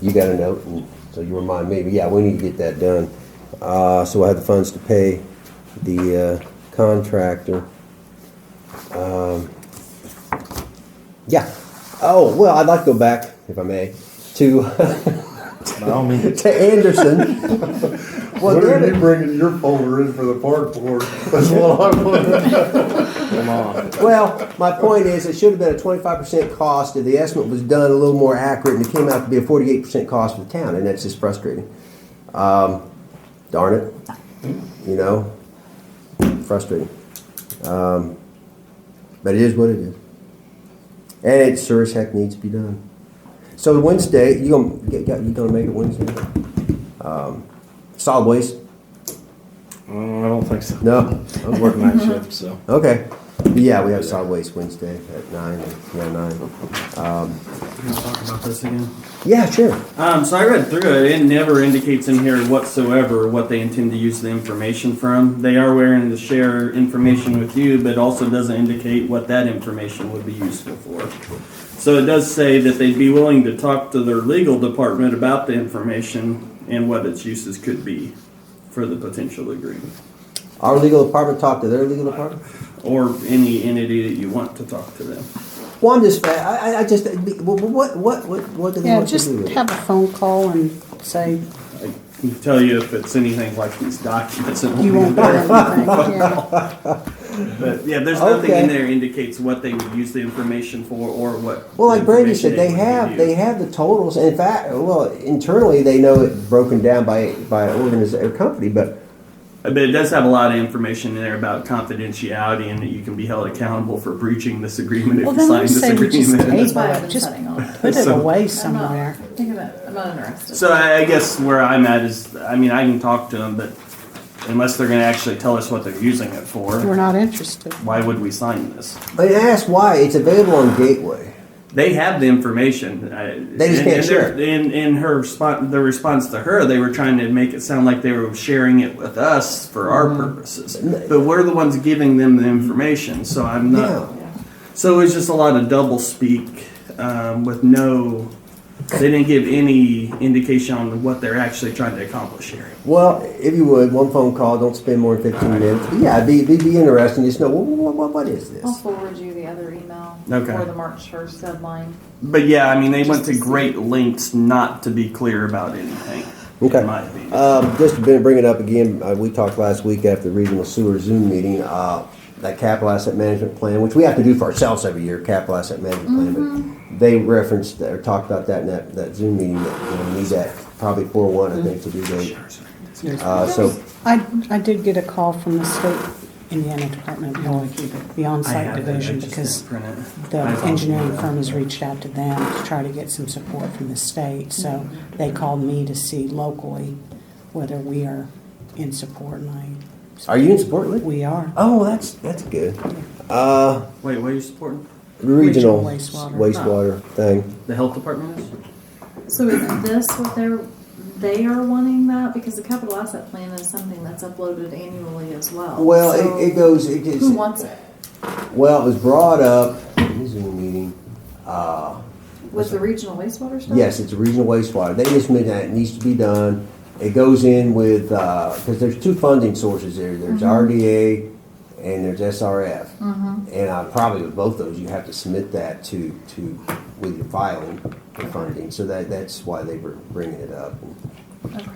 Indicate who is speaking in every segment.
Speaker 1: you got a note, and so you remind me, but yeah, we need to get that done. Uh, so I have the funds to pay the uh, contractor. Um, Yeah, oh, well, I'd like to go back, if I may, to,
Speaker 2: By all means.
Speaker 1: to Anderson. Well,
Speaker 3: What
Speaker 1: they're-
Speaker 3: are you bringing your folder in for the park board? That's what I want.
Speaker 2: Come on.
Speaker 1: Well, my point is, it should have been a twenty-five percent cost if the estimate was done a little more accurate, and it came out to be a forty-eight percent cost for the town, and that's just frustrating. Um, darn it, you know, frustrating. Um, but it is what it is, and it sure as heck needs to be done. So Wednesday, you gonna you gonna make it Wednesday? Um, solid waste?
Speaker 2: Mm, I don't think so.
Speaker 1: No.
Speaker 2: I'm working night shift, so.
Speaker 1: Okay. Yeah, we have solid waste Wednesday at nine, around nine.
Speaker 4: Can I talk about this again?
Speaker 1: Yeah, sure.
Speaker 4: Um, so I read through it. It never indicates in here whatsoever what they intend to use the information from. They are willing to share information with you, but also doesn't indicate what that information would be useful for. So it does say that they'd be willing to talk to their legal department about the information and what its uses could be for the potential agreement.
Speaker 1: Our legal department talked to their legal department?
Speaker 4: Or any entity that you want to talk to them.
Speaker 1: Well, I'm just, I, I- I just, what, what, what, what- what do they
Speaker 5: Yeah,
Speaker 1: want to
Speaker 5: just
Speaker 1: do with it?
Speaker 5: have a phone call and say,
Speaker 4: I can tell you if it's anything like these documents. it be
Speaker 5: you won't do
Speaker 4: very
Speaker 5: anything, yeah.
Speaker 4: But yeah, there's nothing
Speaker 1: Okay.
Speaker 4: in there indicates what they would use the information for or what.
Speaker 1: Well, like Brady
Speaker 4: Brady
Speaker 1: said, they have, they have the totals. In fact, well, internally, they know it broken down by, by organization, or company, but,
Speaker 4: But it does have a lot of information in there about confidentiality and that you can be held accountable for breaching this agreement if
Speaker 5: Well,
Speaker 4: you
Speaker 5: then
Speaker 4: sign
Speaker 5: we
Speaker 4: this
Speaker 5: say we just
Speaker 4: agreement.
Speaker 5: pay
Speaker 6: That's why
Speaker 5: for
Speaker 6: I've
Speaker 5: it,
Speaker 6: been
Speaker 5: just
Speaker 6: sitting on it.
Speaker 5: put it
Speaker 4: So-
Speaker 5: away
Speaker 6: I'm not-
Speaker 5: somewhere.
Speaker 6: Think of it, I'm not interested.
Speaker 4: So I I guess where I'm at is, I mean, I can talk to them, but unless they're gonna actually tell us what they're using it
Speaker 5: We're
Speaker 4: for,
Speaker 5: not interested.
Speaker 4: why would we sign this?
Speaker 1: but ask why. It's available on Gateway.
Speaker 4: They have the information. I-
Speaker 1: They just
Speaker 4: and-
Speaker 1: can't
Speaker 4: and
Speaker 1: share
Speaker 4: their- In in her response, the response to her, they were trying to make it sound like they were sharing it with us for our
Speaker 1: Mm.
Speaker 4: purposes, but we're the ones giving them the information. So I'm not.
Speaker 1: Yeah.
Speaker 4: So it was just a lot of double speak um, with no. They didn't give any indication on what they're actually trying to accomplish here.
Speaker 1: Well, if you would, one phone call, don't spend more than fifteen minutes. Yeah, it'd be, it'd be interesting. Just know, what, what, what is
Speaker 6: I'll
Speaker 5: Oh,
Speaker 1: this?
Speaker 6: forward you the other email
Speaker 4: Okay.
Speaker 6: for the March first deadline.
Speaker 4: But yeah, I mean, they went to great lengths not to be clear about anything.
Speaker 1: Okay.
Speaker 4: In my opinion.
Speaker 1: Um, just to bring bring it up again, uh, we talked last week after the regional sewer Zoom meeting, uh, that capital asset management plan, which we have to do for ourselves every year, capital asset management plan,
Speaker 6: Mm-hmm.
Speaker 1: but they referenced or talked about that in that, that Zoom meeting, that, you know, we need that probably four one, I think, to do that. Uh, so,
Speaker 5: I, I did get a call from the state Indiana Department of Health, the
Speaker 4: I
Speaker 5: onsite
Speaker 4: have it, I
Speaker 5: division,
Speaker 4: just
Speaker 5: because
Speaker 4: didn't print it.
Speaker 5: the
Speaker 4: I thought-
Speaker 5: engineering firm has reached out to them to try to get some support from the state. So they called me to see locally whether we are in support, and I,
Speaker 1: are you in support, Lee?
Speaker 5: we are.
Speaker 1: Oh, that's, that's good. Uh,
Speaker 4: Wait, what are you supporting?
Speaker 1: regional
Speaker 5: Regional wastewater.
Speaker 1: wastewater thing.
Speaker 4: The health department is?
Speaker 6: So is this what they're, they are wanting that? Because the capital asset plan is something that's uploaded annually as well.
Speaker 1: Well,
Speaker 6: So
Speaker 1: it, it goes, it is.
Speaker 6: Who wants it?
Speaker 1: Well, it was brought up in the Zoom meeting, uh,
Speaker 6: With the regional wastewater stuff?
Speaker 1: Yes, it's a regional wastewater. They just meant that it needs to be done. It goes in with, because there's two funding sources there. There's RDA and there's SRF. And uh, probably with both those, you have to submit that to, to, with your filing for funding. So that, that's why they were bringing it up.
Speaker 6: Okay.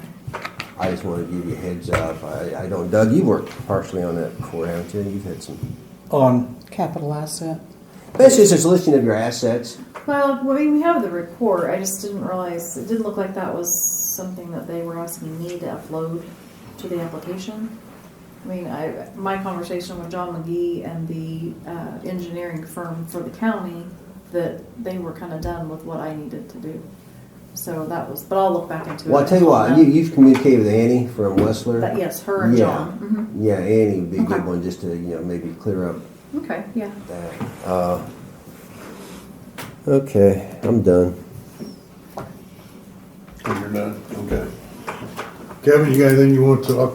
Speaker 1: I just wanted to give you a heads up. I, I don't, Doug, you worked partially on that before, haven't you? You've had some.
Speaker 2: On.
Speaker 5: Capital asset.
Speaker 1: Basically, it's just a listing of your assets.
Speaker 6: Well, we, we have the report, I just didn't realize, it didn't look like that was something that they were asking me to upload to the application. I mean, I, my conversation with John McGee and the, uh, engineering firm for the county, that they were kinda done with what I needed to do. So that was, but I'll look back into it.
Speaker 1: Well, I'll tell you what, you, you've communicated with Annie from Westler.
Speaker 6: But yes, her and
Speaker 1: Yeah.
Speaker 6: John, mhm,
Speaker 1: Yeah, Annie would be a good
Speaker 6: Okay.
Speaker 1: one, just to, you know, maybe clear up
Speaker 6: okay, yeah.
Speaker 1: that. Uh, Okay, I'm done.
Speaker 3: You're done, okay. Kevin, you got anything you want to talk?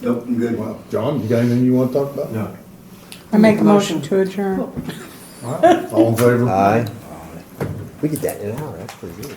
Speaker 7: Nope, I'm good.
Speaker 3: Well, John, you got anything you want to talk about?
Speaker 7: No.
Speaker 5: I make a motion to adjourn.
Speaker 3: All in favor?
Speaker 1: Aye. We get that in an hour, that's pretty good.